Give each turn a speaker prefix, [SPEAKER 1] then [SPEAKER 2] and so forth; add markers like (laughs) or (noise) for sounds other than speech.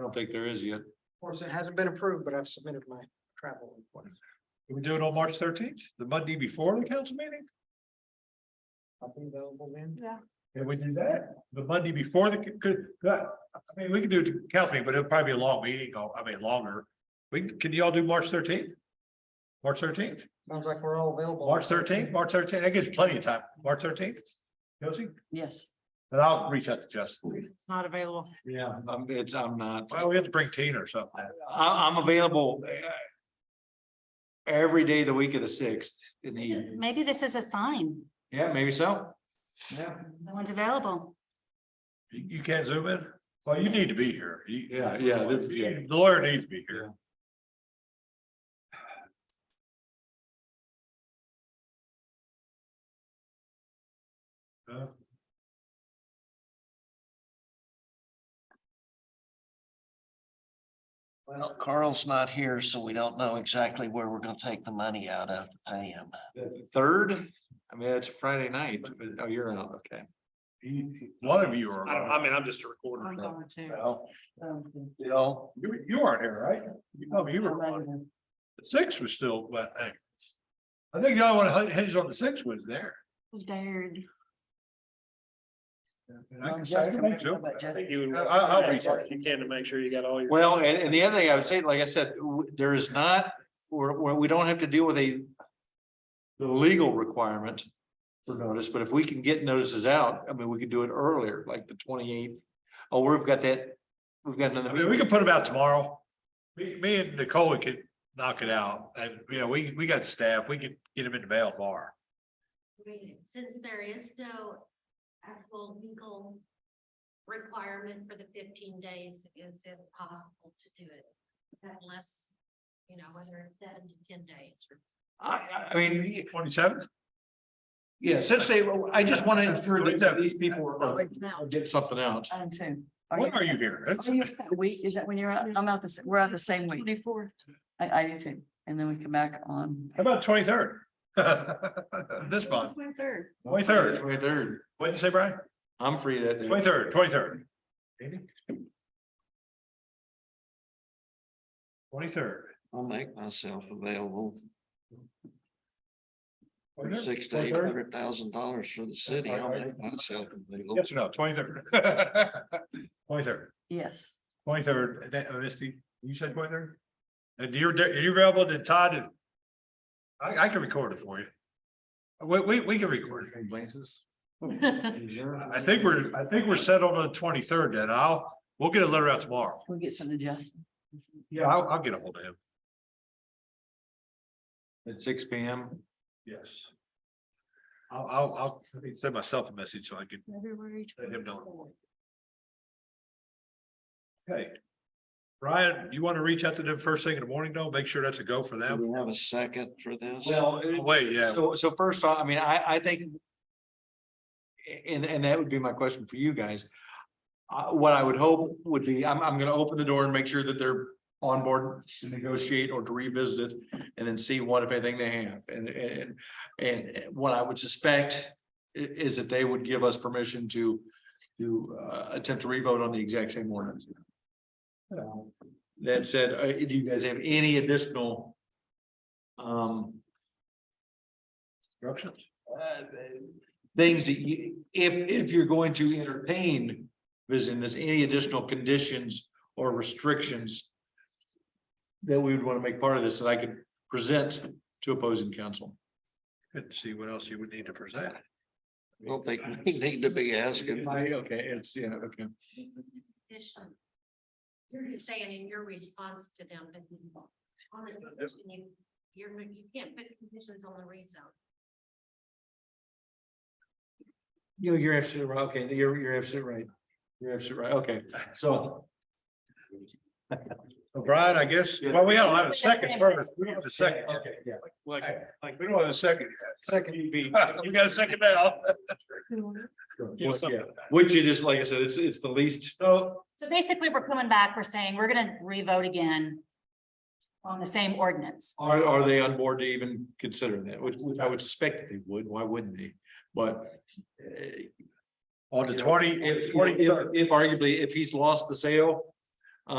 [SPEAKER 1] don't think there is yet.
[SPEAKER 2] Of course, it hasn't been approved, but I've submitted my travel request.
[SPEAKER 3] Can we do it on March thirteenth, the Monday before the council meeting?
[SPEAKER 2] I'll be available then.
[SPEAKER 3] Can we do that? The Monday before the, could, could- I mean, we could do it to council meeting, but it'll probably be a long meeting, or- I mean, longer. We, can y'all do March thirteenth? March thirteenth?
[SPEAKER 2] Sounds like we're all available.
[SPEAKER 3] March thirteenth, March thirteenth, that gives plenty of time, March thirteenth. Josie,
[SPEAKER 4] Yes,
[SPEAKER 3] and I'll reach out to Justin.
[SPEAKER 4] it's not available.
[SPEAKER 1] Yeah. I'm, Um, it's, I'm not,
[SPEAKER 3] Well, we have to bring Tina or something.
[SPEAKER 1] I, I'm available. uh, Every day of the week of the sixth in the evening.
[SPEAKER 5] Maybe this is a sign,
[SPEAKER 1] Yeah, maybe so. Yeah,
[SPEAKER 5] no one's available.
[SPEAKER 3] You, you can't zoom in? Well, you need to be here. You-
[SPEAKER 1] yeah, yeah, this is, yeah.
[SPEAKER 3] The lawyer needs to be here. Uh,
[SPEAKER 6] Well, Carl's not here, so we don't know exactly where we're gonna take the money out of to pay him.
[SPEAKER 1] The Third, I mean, that's Friday night, but, oh, you're out, okay.
[SPEAKER 3] he- he- One of you are.
[SPEAKER 7] I don't, I mean, I'm just a recorder.
[SPEAKER 4] I'm going to.
[SPEAKER 3] Well,
[SPEAKER 4] um,
[SPEAKER 3] You know, you, you aren't here, right? You told me you
[SPEAKER 4] I'm
[SPEAKER 3] were.
[SPEAKER 4] ready to-
[SPEAKER 3] Six was still, but I. I think the only one hinged on the six was there.
[SPEAKER 5] Dared.
[SPEAKER 3] And I
[SPEAKER 4] Um,
[SPEAKER 3] can say
[SPEAKER 4] Justin,
[SPEAKER 3] I think so.
[SPEAKER 4] how about Justin?
[SPEAKER 7] I think you would-
[SPEAKER 3] I- I'll- I'll reach out.
[SPEAKER 7] You can to make sure you got all your.
[SPEAKER 1] Well, and, and the other thing I would say, like I said, w- there is not, we're, we're, we don't have to deal with a. The legal requirement for notice, but if we can get notices out, I mean, we could do it earlier, like the twenty eighth. Oh, we've got that, we've got another.
[SPEAKER 3] I mean, we can put them out tomorrow. Me, me and Nicole could knock it out and, you know, we, we got staff, we could get them in the mail tomorrow.
[SPEAKER 8] Right, since there is no actual legal requirement for the fifteen days, is it possible to do it? Unless, you know, whether it's seven to ten days or
[SPEAKER 1] I, I mean,
[SPEAKER 3] Twenty seventh?
[SPEAKER 1] yeah, since they, I just want to ensure that these people are
[SPEAKER 4] Now,
[SPEAKER 1] are getting something out.
[SPEAKER 4] I'm too.
[SPEAKER 3] When are you here? That's,
[SPEAKER 4] Are you out that Week, is that when you're out? I'm out this, we're out the same week. Twenty-four. I, I do too. And then we come back on.
[SPEAKER 3] how about twenty third? (laughs) This month,
[SPEAKER 4] Twenty-third.
[SPEAKER 3] twenty third.
[SPEAKER 1] Right there.
[SPEAKER 3] What'd you say, Brian?
[SPEAKER 1] I'm free that day.
[SPEAKER 3] Twenty third, twenty third. Twenty third.
[SPEAKER 6] I'll make myself available for six to eight
[SPEAKER 3] Yes
[SPEAKER 6] hundred thousand dollars for the city. I'll make myself available.
[SPEAKER 3] or no, twenty third? (laughs) Twenty third,
[SPEAKER 5] (laughs)
[SPEAKER 4] Yes.
[SPEAKER 3] twenty third, uh, Misty, you said twenty third? And you're, you're available to Todd and. I, I can record it for you. We, we, we can record it.
[SPEAKER 1] Places.
[SPEAKER 3] I think we're, I think we're set on the twenty-third, then I'll, we'll get a letter out tomorrow.
[SPEAKER 4] We'll get some adjustment.
[SPEAKER 3] Yeah. I'll, I'll get a hold of him.
[SPEAKER 1] At six P M.
[SPEAKER 3] Yes. I'll, I'll, I'll let me send myself a message so I can
[SPEAKER 5] February.
[SPEAKER 3] let him know. Okay. Brian, you want to reach out to them first thing in the morning, though? Make sure that's a go for
[SPEAKER 6] Do
[SPEAKER 3] them.
[SPEAKER 6] we have a second for this?
[SPEAKER 1] Well, it-
[SPEAKER 3] Oh, Wait, yeah,
[SPEAKER 1] So, so first off, I mean, I, I think. And, and that would be my question for you guys. Uh, what I would hope would be, I'm, I'm gonna open the door and make sure that they're on board to negotiate or to revisit it. And then see what, if anything they have. And, and, and what I would suspect i- is that they would give us permission to, to, uh, attempt to revote on the exact same ordinance. Um, That said, uh, do you guys have any additional? Um,
[SPEAKER 3] instructions.
[SPEAKER 1] uh, things that you, if, if you're going to entertain visiting this, any additional conditions or restrictions that we would want to make part of this that I could present to opposing counsel.
[SPEAKER 3] Good to see what else you would need to present.
[SPEAKER 6] I don't think we need to be asking.
[SPEAKER 1] If I- Okay, it's, yeah, okay.
[SPEAKER 8] addition. You're just saying in your response to them, that you on the condition, you- you're, you can't put conditions on the rezone.
[SPEAKER 1] You, you're absolutely right. Okay, you're, you're absolutely right. You're absolutely right. Okay, so.
[SPEAKER 3] (laughs) So Brian, I guess, well, we don't have a second first. We don't have a second. yet.
[SPEAKER 1] Okay, yeah.
[SPEAKER 7] Like,
[SPEAKER 3] We don't have a second. (laughs)
[SPEAKER 1] Second,
[SPEAKER 3] yet. We got a second now.
[SPEAKER 7] you know, something.
[SPEAKER 1] Which it is, like I said, it's, it's the least.
[SPEAKER 3] So
[SPEAKER 5] So basically, we're coming back, we're saying we're gonna revote again on the same ordinance.
[SPEAKER 1] Are, are they on board to even consider that, which, which I would suspect that they would, why wouldn't they? But. eh,
[SPEAKER 3] on the
[SPEAKER 1] you know,
[SPEAKER 3] twenty,
[SPEAKER 1] If,
[SPEAKER 3] twenty,
[SPEAKER 1] if, if arguably, if he's lost the sale,